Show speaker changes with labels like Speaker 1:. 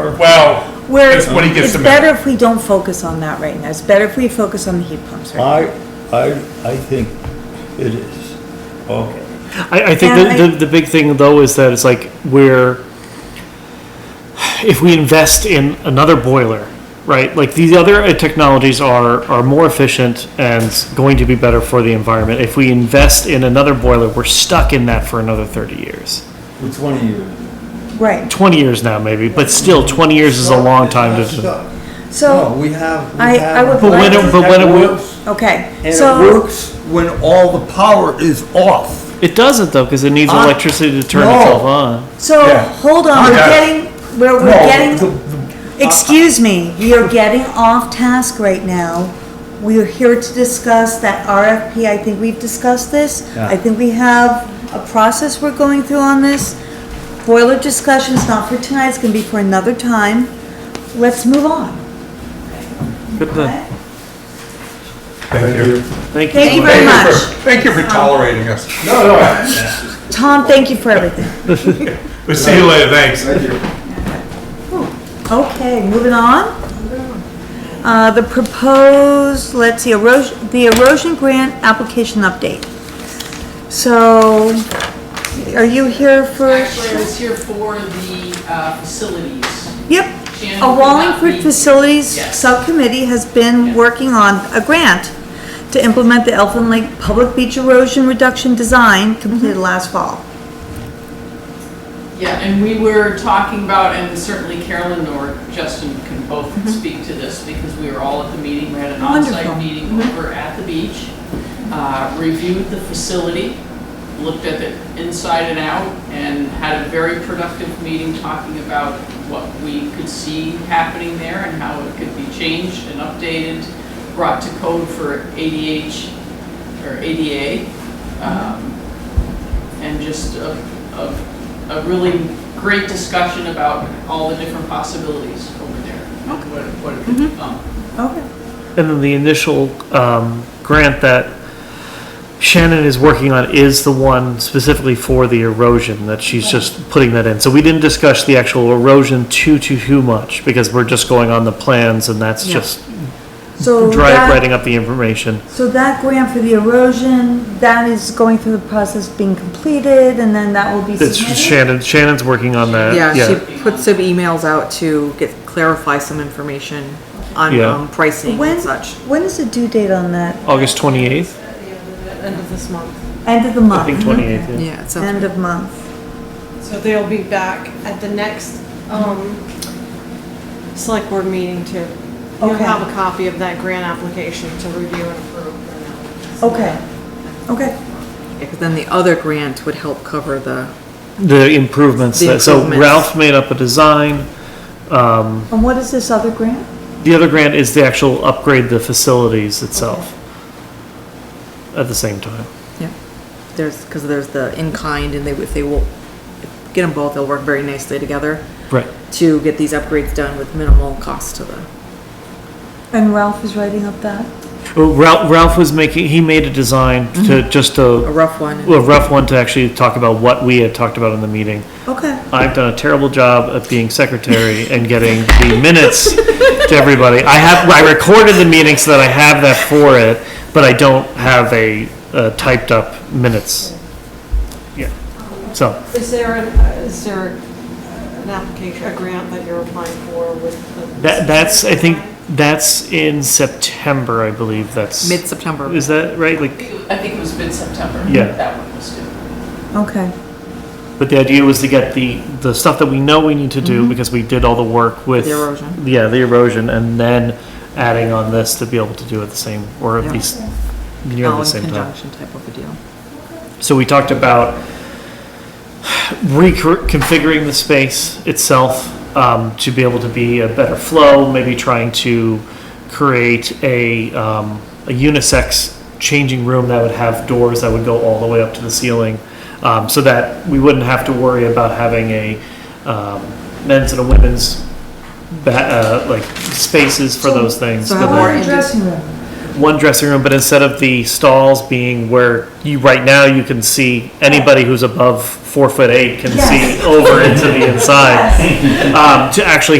Speaker 1: Or, well,
Speaker 2: Where
Speaker 1: that's what he gets
Speaker 2: it's
Speaker 1: to
Speaker 2: better
Speaker 1: make.
Speaker 2: if we don't focus on that right now. It's better if we focus on the heat pumps
Speaker 3: Uh,
Speaker 2: right now.
Speaker 4: I, I, I think it is. Okay.
Speaker 5: I, I think
Speaker 2: And
Speaker 5: the, the, the big thing though is that it's like we're if we invest in another boiler, right? Like these other uh, technologies are are more efficient and going to be better for the environment. If we invest in another boiler, we're stuck in that for another thirty years,
Speaker 3: For twenty years.
Speaker 2: Right,
Speaker 5: twenty years now maybe, but still twenty years is a long time
Speaker 3: That's
Speaker 5: to.
Speaker 3: stuck. No,
Speaker 2: so,
Speaker 3: we have, we
Speaker 2: I-
Speaker 3: have.
Speaker 2: I would
Speaker 5: But when it- but when it will-
Speaker 2: okay,
Speaker 3: And it
Speaker 2: so,
Speaker 3: works when all the power is off.
Speaker 5: It doesn't though because it
Speaker 2: Uh,
Speaker 5: needs
Speaker 3: I-
Speaker 5: electricity to turn
Speaker 3: No.
Speaker 5: itself on.
Speaker 2: so,
Speaker 3: Yeah.
Speaker 2: hold on, we're
Speaker 1: Yeah.
Speaker 2: getting, we're, we're
Speaker 3: No,
Speaker 2: getting,
Speaker 3: the- uh,
Speaker 2: excuse me, you're getting off task right now. We are here to discuss that RFP, I think we've discussed this.
Speaker 3: Yeah.
Speaker 2: I think we have a process we're going through on this. Boiler discussion's not for tonight, it's gonna be for another time. Let's move on.
Speaker 5: Good then.
Speaker 1: Thank you.
Speaker 5: Thank you.
Speaker 2: Thank you
Speaker 5: so much.
Speaker 2: very
Speaker 1: Thank you
Speaker 2: much.
Speaker 1: for- Thank you for tolerating us.
Speaker 2: Tom, thank you for everything.
Speaker 1: We'll see you later, thanks.
Speaker 2: Okay, moving on. Uh, the proposed, let's see, erosion, the erosion grant application update. So, are you here for?
Speaker 6: Actually, I was here for the uh, facilities.
Speaker 2: Yep,
Speaker 6: Shannon
Speaker 2: a
Speaker 6: could not
Speaker 2: Wallingford
Speaker 6: be-
Speaker 2: Facilities
Speaker 6: Yes.
Speaker 2: Subcommittee has been working on a grant to implement the Elfin Lake Public Beach Erosion Reduction Design completed last fall.
Speaker 6: Yeah, and we were talking about, and certainly Carolyn or Justin can both speak to this, because we were all at the meeting, we had an
Speaker 2: Wonderful.
Speaker 6: on-site meeting over at the beach, uh, reviewed the facility, looked at it inside and out, and had a very productive meeting talking about what we could see happening there and how it could be changed and updated, brought to code for ADH, or ADA, um, and just a, a, a really great discussion about all the different possibilities over there. and What, what it could um, become.
Speaker 2: Okay.
Speaker 5: And then the initial um, grant that Shannon is working on is the one specifically for the erosion that she's just putting that in. So we didn't discuss the actual erosion too, too, too much because we're just going on the plans and that's
Speaker 2: Yeah.
Speaker 5: just
Speaker 2: So
Speaker 5: dry
Speaker 2: that-
Speaker 5: writing up the information.
Speaker 2: So that grant for the erosion, that is going through the process being completed, and then that will be
Speaker 5: It's
Speaker 2: submitted?
Speaker 5: Shannon, Shannon's working on that.
Speaker 7: Yeah,
Speaker 5: Yeah.
Speaker 7: she put some emails out to get, clarify some information on
Speaker 5: Yeah.
Speaker 7: um, pricing
Speaker 2: When,
Speaker 7: and such.
Speaker 2: when is the due date on that?
Speaker 5: August 28th,
Speaker 8: end of this month.
Speaker 2: End of the
Speaker 5: I think
Speaker 2: month?
Speaker 5: 28th. yeah.
Speaker 7: Yeah, so.
Speaker 2: End of month.
Speaker 8: So they'll be back at the next, um, select board meeting to, you'll
Speaker 2: Okay.
Speaker 8: have a copy of that grant application to review and approve.
Speaker 2: Okay, okay.
Speaker 7: Because then the other grant would help cover the,
Speaker 5: The improvements,
Speaker 7: The
Speaker 5: that- so
Speaker 7: improvements.
Speaker 5: Ralph made up a design. um,
Speaker 2: And what is this other grant?
Speaker 5: The other grant is the actual upgrade the facilities itself at the same time.
Speaker 7: yeah, there's, because there's the in-kind and they, would- if they will, get them both, they'll work very nicely together
Speaker 5: Right.
Speaker 7: to get these upgrades done with minimal cost to the,
Speaker 2: And Ralph is writing up that?
Speaker 5: Well, Ralph, Ralph was making, he made a design to, just
Speaker 7: a
Speaker 5: a,
Speaker 7: rough one.
Speaker 5: a rough one to actually talk about what we had talked about in the meeting.
Speaker 2: Okay,
Speaker 5: I've done a terrible job of being secretary and getting the minutes to everybody. I have, I recorded the meeting so that I have that for it, but I don't have a, uh typed up minutes. Yeah, so,
Speaker 8: Is there, an- uh, is there uh, an application, a grant that you're applying for with the?
Speaker 5: that, that's, I think, that's in September, I believe, that's.
Speaker 7: Mid-September.
Speaker 5: Is that right? Like,
Speaker 6: I think it was mid-September.
Speaker 5: Yeah.
Speaker 6: That one was due.
Speaker 2: okay.
Speaker 5: But the idea was to get the, the stuff that we know we need to do because we did all the work with.
Speaker 7: Mm-hmm. The erosion.
Speaker 5: Yeah, the erosion, and then adding on this to be able to do it the same, or at
Speaker 7: Yeah.
Speaker 5: least near
Speaker 7: all
Speaker 5: the
Speaker 7: in
Speaker 5: same time.
Speaker 7: Conjunction type of a deal.
Speaker 5: So we talked about reconfiguring the space itself um, to be able to be a better flow, maybe trying to create a, um, a unisex changing room that would have doors that would go all the way up to the ceiling um, so that we wouldn't have to worry about having a um, men's and a women's ba- uh, like spaces for those things.
Speaker 7: so
Speaker 5: but
Speaker 7: how
Speaker 5: then-
Speaker 7: are
Speaker 2: One dressing room.
Speaker 5: one dressing room, but instead of the stalls being where you, right now, you can see anybody who's above four foot eight can
Speaker 2: Yes.
Speaker 5: see over into the inside. Um, to actually